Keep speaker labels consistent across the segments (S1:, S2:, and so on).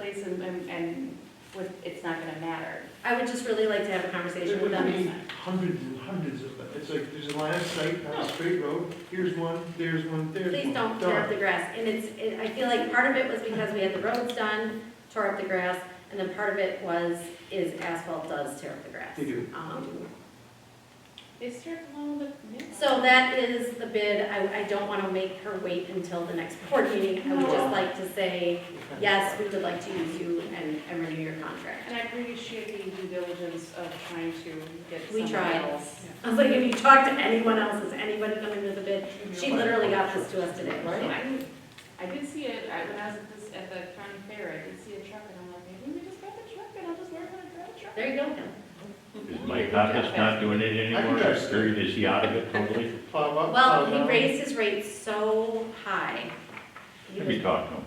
S1: and, and- and with, it's not gonna matter.
S2: I would just really like to have a conversation
S3: There
S2: with
S3: would be
S2: them.
S3: hundreds and hundreds of them. It's like, there's a line of sight on a straight road, here's one, there's one, there's one.
S2: Please don't tear up the grass. And it's, it- I feel like part of it was because we had the roads done, tore up the grass, and then part of it was, is asphalt does tear up the grass.
S3: They do.
S2: Um,
S1: They start below the.
S2: So that is the bid. I, I don't want to make her wait until the next board meeting. I would just
S1: No.
S2: like to say, yes, we would like to use you and, and renew your contract.
S1: And I appreciate the due diligence of trying to get
S2: We
S1: someone
S2: tried.
S1: else.
S2: I was like, if you talk to anyone else, is anybody coming to the bid? She literally got this to us today.
S1: So
S3: Right.
S1: I did, I did see it, I, when I was at this, at the county fair, I did see a truck and I'm like, maybe we just grab the truck and I'll just work on a grab truck.
S2: There you go.
S4: Is Mike Hoppus not doing it anymore?
S3: I
S4: Is
S3: think
S4: he- is he out of it totally?
S3: Plow up,
S2: Well,
S3: plow down.
S2: he raised his rate so high. he
S4: Let me
S2: was-
S4: talk to him.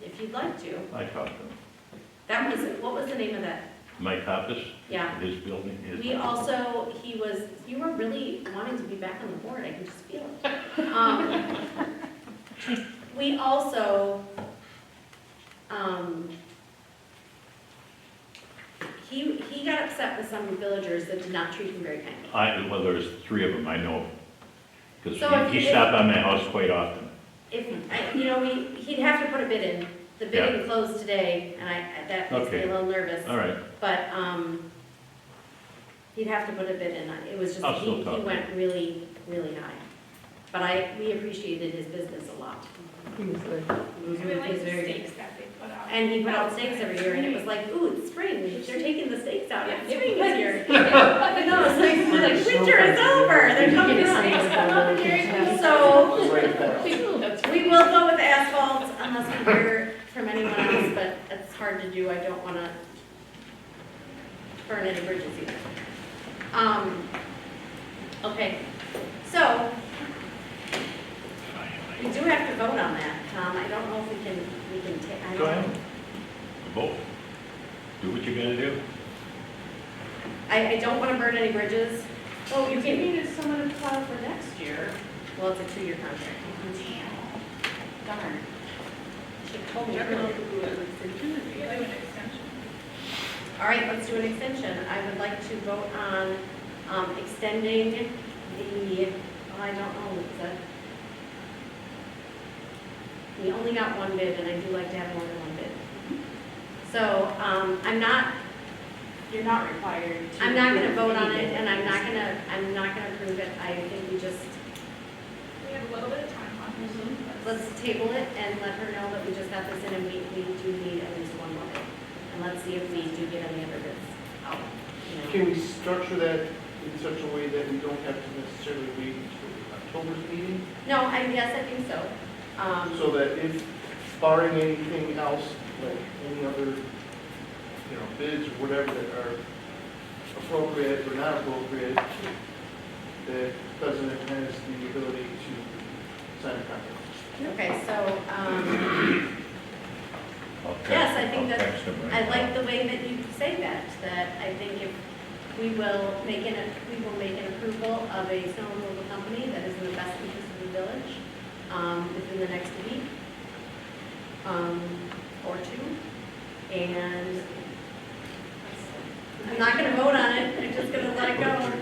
S2: If you'd like to.
S4: I talked to him.
S2: That was, what was the name of that?
S4: Mike Hoppus?
S2: Yeah.
S4: His building, his.
S2: We also, he was, you were really wanting to be back on the board, I can just feel it. Um, We also, um, he, he got upset with some villagers that did not treat him very kindly.
S4: I, well, there's three of them I know. Because
S2: So if
S4: he
S2: you-
S4: stopped by my house quite often.
S2: If, I- you know, we, he'd have to put a bid in. The bidding closed today, and I, that makes me a
S4: Okay.
S2: little nervous.
S4: All right,
S2: But, um, he'd have to put a bid in, it was just,
S4: I'll still
S2: he,
S4: talk
S2: he
S4: to
S2: went really, really high. But I, we appreciated his business a lot.
S1: I really like
S2: He's
S1: the
S2: very-
S1: stakes that they put out.
S2: And he put out steaks every year, and it was like, ooh, it's spring, they're taking the steaks out,
S1: Yeah,
S2: it's spring this year.
S1: Yeah.
S2: But no, it's like, it's like, winter is over, they're coming
S1: Steaks
S2: out.
S1: come out here and-
S2: So,
S3: Just like that.
S1: That's
S2: we will go with asphalt unless we hear from anyone else, but it's hard to do, I don't wanna burn any bridges either. Um, okay, so, we do have to vote on that, Tom, I don't know if we can, we can take, I don't.
S4: go ahead. Vote. Do what you gotta do.
S2: I, I don't wanna burn any bridges,
S1: Well, you can need someone to plow for next year.
S2: well, it's a two-year contract.
S1: Damn. Darn.
S2: Should have told me.
S1: You're
S2: earlier.
S1: gonna do an extension.
S5: Really, an extension.
S2: All right, let's do an extension. I would like to vote on um, extending the, oh, I don't know, is that? We only got one bid, and I do like to have more than one bid. So um, I'm not,
S1: You're not required to.
S2: I'm not going to vote on it, and I'm not going to, I'm not going to approve it. I think we just,
S5: We have a little bit of time on this.
S2: let's table it and let her know that we just got this in, and we, we do need at least one more bid. And let's see if we do get any other bids out, you know.
S3: Can we structure that in such a way that we don't have to necessarily wait until October's meeting?
S2: No, I, yes, I think so. Um,
S3: So that if barring anything else, like any other, you know, bids or whatever that are appropriate or not appropriate, the president has the ability to sign a contract.
S2: okay, so, um,
S4: I'll text-
S2: Yes, I think that-
S4: I'll text him right
S2: I
S4: now.
S2: like the way that you say that, that I think if we will make an, we will make an approval of a snow removal company that is in the best interest of the village, um, within the next week, um, or two. And I'm not gonna vote on it, I'm just gonna let it go.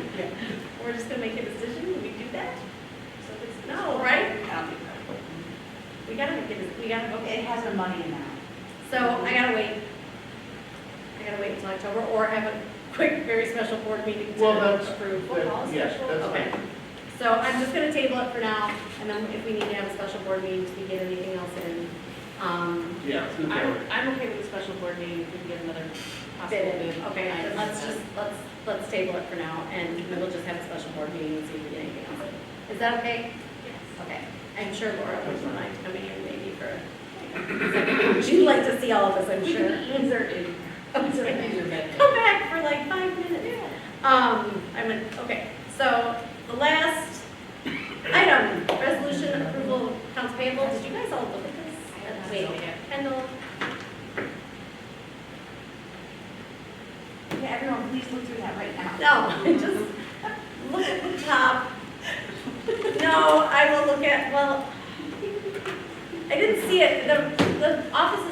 S2: We're just gonna make a decision, we do that? No, right? We gotta make it, we gotta vote.
S6: It has a money amount.
S2: So I gotta wait. I gotta wait until October or have a quick, very special board meeting to
S3: Well, that's-
S2: approve.
S3: that- yes, that's
S2: Okay. So I'm just gonna table it for now and then if we need to have a special board meeting to get anything else in, um,
S3: Yeah.
S1: I'm, I'm okay with a special board meeting if we can get another possible
S2: bid
S1: bid.
S2: in. Okay, then
S1: Item.
S2: let's just, let's, let's table it for now and we'll just have a special board meeting and see if we get anything else in. Is that okay? Okay. I'm sure Laura would like to come in here maybe for, a- she'd like to see all of us, I'm
S1: We
S2: sure.
S1: can insert in, insert in your bid.
S2: come back for like five minutes. Um, I'm, in- okay, so the last item, resolution approval of accounts payable, did you guys all look at this? Wait, Kendall,
S6: Okay, everyone, please look through that right now.
S2: no, just look at the top. No, I will look at, well, I didn't see it, the, the office is